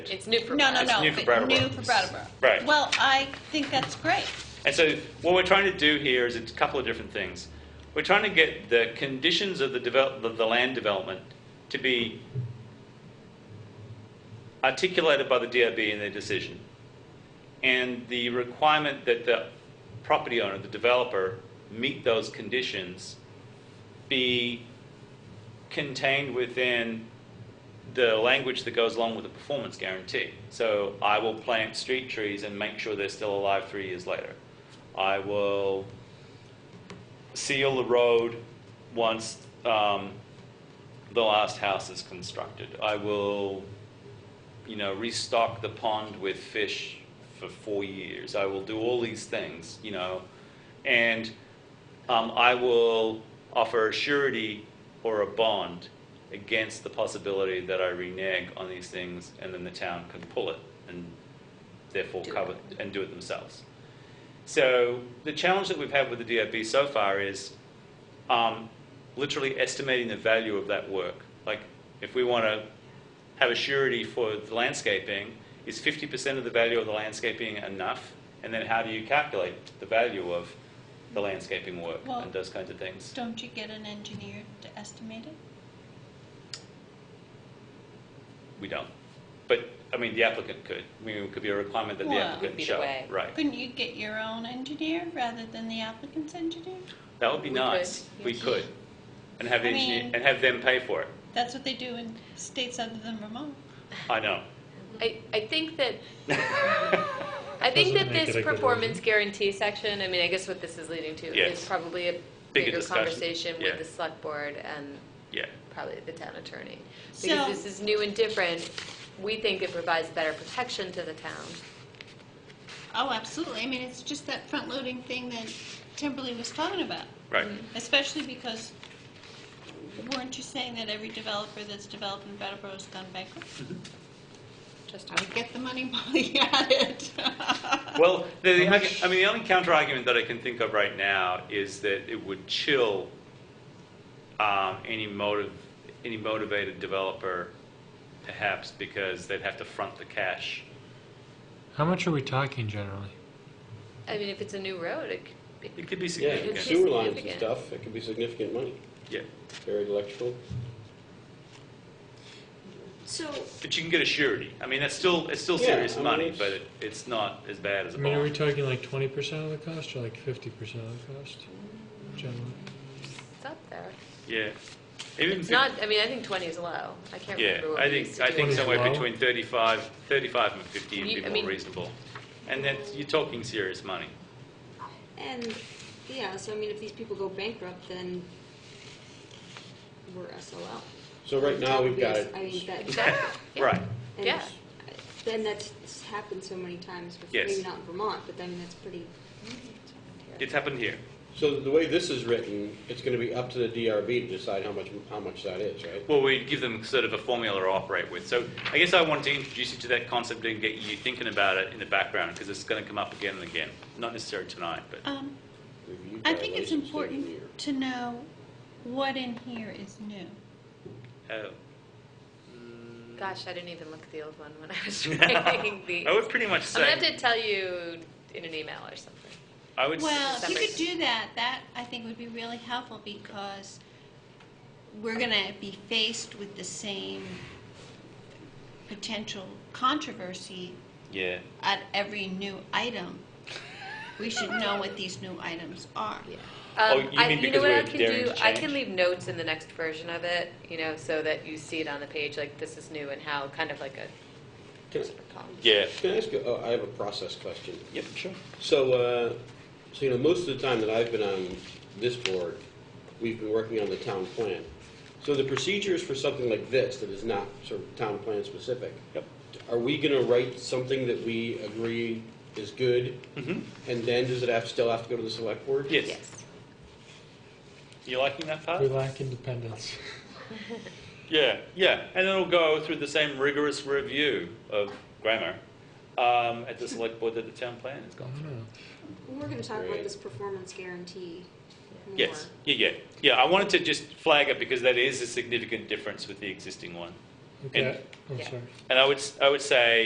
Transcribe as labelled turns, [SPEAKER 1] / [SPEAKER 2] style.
[SPEAKER 1] It's new for
[SPEAKER 2] No, no,
[SPEAKER 1] us.
[SPEAKER 2] no.
[SPEAKER 3] new for
[SPEAKER 2] but
[SPEAKER 3] Brattleboro.
[SPEAKER 2] New for Brattleboro.
[SPEAKER 3] Right.
[SPEAKER 2] Well, I think that's great.
[SPEAKER 3] And so what we're trying to do here is a couple of different things. We're trying to get the conditions of the develop, of the land development to be articulated by the DRB in their decision. And the requirement that the property owner, the developer, meet those conditions be contained within the language that goes along with the performance guarantee. So I will plant street trees and make sure they're still alive three years later. I will seal the road once um, the last house is constructed. I will, you know, restock the pond with fish for four years. I will do all these things, you know, and um, I will offer a surety or a bond against the possibility that I renege on these things and then the town can pull it and therefore
[SPEAKER 1] Do
[SPEAKER 3] cover and do it themselves. So the challenge that we've had with the DRB so far is um, literally estimating the value of that work. Like, if we want to have a surety for the landscaping, is 50% of the value of the landscaping enough? And then how do you calculate the value of the landscaping work
[SPEAKER 2] Well-
[SPEAKER 3] and those kinds of things?
[SPEAKER 2] Don't you get an engineer to estimate it?
[SPEAKER 3] We don't. But, I mean, the applicant could. I mean, it could be a requirement that the
[SPEAKER 2] Well,
[SPEAKER 3] applicant
[SPEAKER 1] would be the
[SPEAKER 3] show.
[SPEAKER 1] way.
[SPEAKER 3] Right.
[SPEAKER 2] Couldn't you get your own engineer rather than the applicant's engineer?
[SPEAKER 3] That would be
[SPEAKER 1] We could,
[SPEAKER 3] nice. We
[SPEAKER 1] yes.
[SPEAKER 3] could. And have, the
[SPEAKER 2] I
[SPEAKER 3] engineer,
[SPEAKER 2] mean-
[SPEAKER 3] and have them pay for it.
[SPEAKER 2] That's what they do in states other than Vermont.
[SPEAKER 3] I know.
[SPEAKER 1] I, I think that, I think that
[SPEAKER 4] Doesn't make it a
[SPEAKER 1] this
[SPEAKER 4] good
[SPEAKER 1] performance guarantee section, I mean, I guess what this is leading to
[SPEAKER 3] Yes.
[SPEAKER 1] is probably a
[SPEAKER 3] Bigger
[SPEAKER 1] bigger
[SPEAKER 3] discussion,
[SPEAKER 1] conversation
[SPEAKER 3] yeah.
[SPEAKER 1] with the select board and
[SPEAKER 3] Yeah.
[SPEAKER 1] probably the town attorney.
[SPEAKER 2] So-
[SPEAKER 1] Because this is new and different, we think it provides better protection to the town.
[SPEAKER 2] Oh, absolutely. I mean, it's just that front-loading thing that Timberly was talking about.
[SPEAKER 3] Right.
[SPEAKER 2] Mm-hmm. Especially because, weren't you saying that every developer that's developed in Brattleboro has gone bankrupt?
[SPEAKER 3] Mm-hmm.
[SPEAKER 1] Just,
[SPEAKER 2] I get the money while you had it.
[SPEAKER 3] Well, the, the, argu- I mean, the only counter argument that I can think of right now is that it would chill um, any motive, any motivated developer, perhaps because they'd have to front the cash.
[SPEAKER 4] How much are we talking generally?
[SPEAKER 1] I mean, if it's a new road, it could be
[SPEAKER 3] It could be
[SPEAKER 5] Yeah,
[SPEAKER 3] significant.
[SPEAKER 5] sewer lines and
[SPEAKER 1] Significant.
[SPEAKER 5] stuff, it could be significant money,
[SPEAKER 3] Yeah.
[SPEAKER 5] buried electrical.
[SPEAKER 6] So,
[SPEAKER 3] but you can get a surety. I mean, that's still it's still
[SPEAKER 5] Yeah,
[SPEAKER 3] serious
[SPEAKER 5] I mean,
[SPEAKER 3] money,
[SPEAKER 5] it's-
[SPEAKER 3] but it, it's not as bad as
[SPEAKER 4] I
[SPEAKER 3] a
[SPEAKER 4] mean, are we
[SPEAKER 3] bond.
[SPEAKER 4] talking like twenty percent of the cost or like fifty percent of the cost generally?
[SPEAKER 1] it's up there.
[SPEAKER 3] yeah, even
[SPEAKER 1] It's
[SPEAKER 3] fif-
[SPEAKER 1] not, I mean, I think 20 is low. I can't
[SPEAKER 3] Mm-hmm. Yeah,
[SPEAKER 1] remember what
[SPEAKER 3] I
[SPEAKER 1] we used
[SPEAKER 3] think
[SPEAKER 1] to
[SPEAKER 3] I
[SPEAKER 1] do.
[SPEAKER 3] think
[SPEAKER 4] it.
[SPEAKER 3] somewhere
[SPEAKER 4] Well-
[SPEAKER 3] between 35, 35 and fifty would
[SPEAKER 1] You-
[SPEAKER 3] be
[SPEAKER 1] I
[SPEAKER 3] more
[SPEAKER 1] mean-
[SPEAKER 3] reasonable, and that's you're talking serious money.
[SPEAKER 6] and, yeah, so I mean, if these people go bankrupt, then we're SOL.
[SPEAKER 5] So right now, we've got it,
[SPEAKER 6] I mean, that,
[SPEAKER 1] Exactly. Yeah.
[SPEAKER 3] Right.
[SPEAKER 6] and
[SPEAKER 1] Yeah.
[SPEAKER 6] then that's it's happened so many times before,
[SPEAKER 3] Yes.
[SPEAKER 6] maybe not in Vermont, but I mean, that's pretty,
[SPEAKER 3] It's happened here.
[SPEAKER 5] so the way this is written, it's gonna be up to the DRB to decide how much, how much that is, right?
[SPEAKER 3] Well, we give them sort of a formula to operate with. So I guess I wanted to introduce you to that concept and get you thinking about it in the background because it's going to come up again and again. Not necessarily tonight, but
[SPEAKER 2] Um,
[SPEAKER 5] Reviewed
[SPEAKER 2] I
[SPEAKER 5] by
[SPEAKER 2] think it's
[SPEAKER 5] licensed
[SPEAKER 2] important
[SPEAKER 5] engineer.
[SPEAKER 2] to know what in here is new.
[SPEAKER 3] uh,
[SPEAKER 1] Gosh, I didn't even look at the old one when I was writing the.
[SPEAKER 3] I would pretty much
[SPEAKER 1] I'm gonna have
[SPEAKER 3] say
[SPEAKER 1] to tell you in an email or something.
[SPEAKER 3] I would. s-
[SPEAKER 2] Well, if you
[SPEAKER 1] separate.
[SPEAKER 2] could do that, that I think would be really helpful because we're going to be faced with the same potential controversy
[SPEAKER 3] yeah.
[SPEAKER 2] at every new item. We should know what these new items are.
[SPEAKER 1] Yeah.
[SPEAKER 3] Oh,
[SPEAKER 1] Um,
[SPEAKER 3] you
[SPEAKER 1] I,
[SPEAKER 3] mean
[SPEAKER 1] you know
[SPEAKER 3] because
[SPEAKER 1] what
[SPEAKER 3] we're
[SPEAKER 1] I can
[SPEAKER 3] daring
[SPEAKER 1] do?
[SPEAKER 3] to
[SPEAKER 1] I
[SPEAKER 3] change?
[SPEAKER 1] can leave notes in the next version of it, you know, so that you see it on the page, like this is new and how, kind of like a
[SPEAKER 5] Can
[SPEAKER 1] sort of column.
[SPEAKER 3] Yeah.
[SPEAKER 5] I- Can I ask, you- oh, I have a process question.
[SPEAKER 3] Yep. Sure.
[SPEAKER 5] So, uh, so you know, most of the time that I've been on this board, we've been working on the town plan. So the procedures for something like this that is not sort of town plan specific,
[SPEAKER 3] Yep.
[SPEAKER 5] are we going to write something that we agree is good?
[SPEAKER 3] Mm-hmm.
[SPEAKER 5] And then does it have, still have to go to the select board?
[SPEAKER 3] Yes.
[SPEAKER 1] Yes.
[SPEAKER 3] You liking that part?
[SPEAKER 4] We lack independence.
[SPEAKER 3] Yeah, yeah, and it'll go through the same rigorous review of grammar um, at the select board that the town plan has
[SPEAKER 4] I
[SPEAKER 3] gone
[SPEAKER 4] don't
[SPEAKER 3] through.
[SPEAKER 4] know.
[SPEAKER 6] we're gonna talk
[SPEAKER 5] Right.
[SPEAKER 6] about this performance guarantee more.
[SPEAKER 3] Yes, yeah, yeah, yeah. I wanted to just flag it because that is a significant difference with the existing one.
[SPEAKER 4] Okay, Oh, I'm
[SPEAKER 1] Yeah.
[SPEAKER 4] sorry.
[SPEAKER 3] And I would, s- I would say,